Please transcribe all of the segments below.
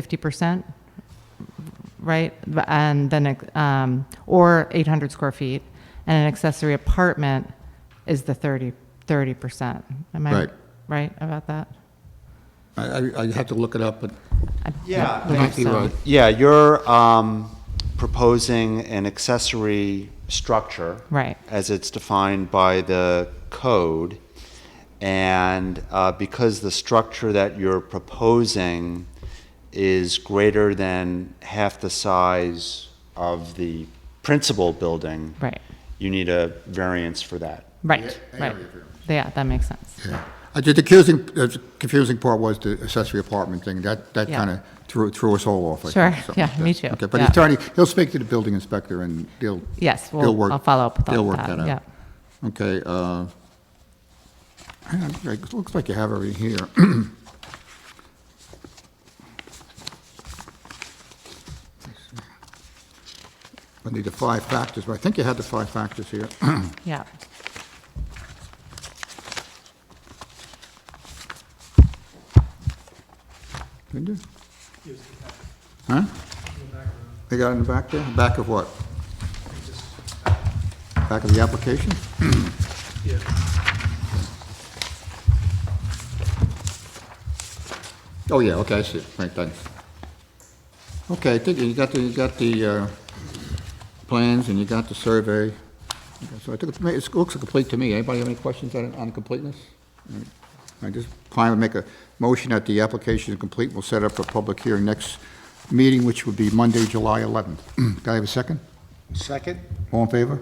fifty percent, right? And then, um, or eight hundred square feet, and an accessory apartment is the 30 percent. Am I Right. right about that? I, I- I have to look it up, but I- Yeah, I I believe might be so. right. Yeah, you're um, proposing an accessory structure. Right. As it's defined by the code. And uh, because the structure that you're proposing is greater than half the size of the principal building. Right. You need a variance for that. Right, Yeah, right. area variance. Yeah, that makes sense. yeah. I did- The confusing, uh, the confusing part was the accessory apartment thing. That, that Yeah. kind of threw, threw us all off. I think, Sure. something like Yeah, me that. too. Okay, but Yeah. the attorney, he'll speak to the building inspector and they'll. Yes, they'll we'll- work- I'll follow up with all They'll of work that, that out. Okay, uh, hang on, it looks like you have it right here. I need the five factors, but I think you had the five factors here. Yeah. Did you? Huh? They got it in the back there? Back of what? Back of the application? Oh, yeah, okay, I see it, right, thanks. Okay, I think you got the, you got the uh, plans and you got the survey. Okay, So I think it ma- it looks complete to me. Anybody have any questions on on completeness? I just plan to make a motion that the application is complete. We'll set up a public hearing next meeting, which would be Monday, July 11th. Can I have a second? Second? All in favor?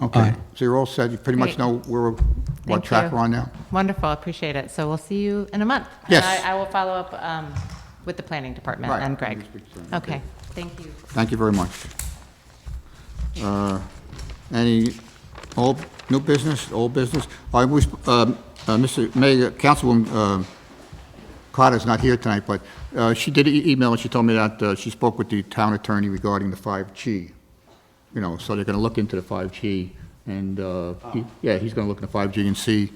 Okay, so you're all set. You pretty much Great. know where, what Thank track you. we're on now? Wonderful, appreciate it. So we'll see you in a month. And Yes. I, I will follow up, um, with the planning department Right. and Greg. You speak to them. Okay, thank you. Thank you very much. Uh, Any old, new business, old business? I wish, um, uh, Mr. Mayor, Councilwoman um, Carter's not here tonight, but uh, she did e- email, and she told me that uh, she spoke with the town attorney regarding the 5G. You know, so they're going to look into the 5G, and, uh, he- yeah, he's going to look into 5G and see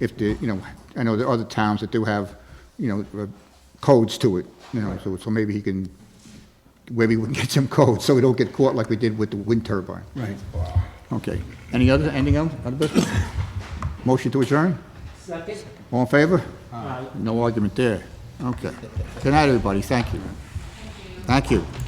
if the, you know, I know there are other towns that do have, you know, uh, codes to it, you know, so so maybe he can maybe we can get some code, so we don't get caught like we did with the wind turbine. Right. Okay. Any other, anything else, other business? Motion to adjourn? Second. All in favor? No argument there. Okay. Good night, everybody. Thank you. Thank you.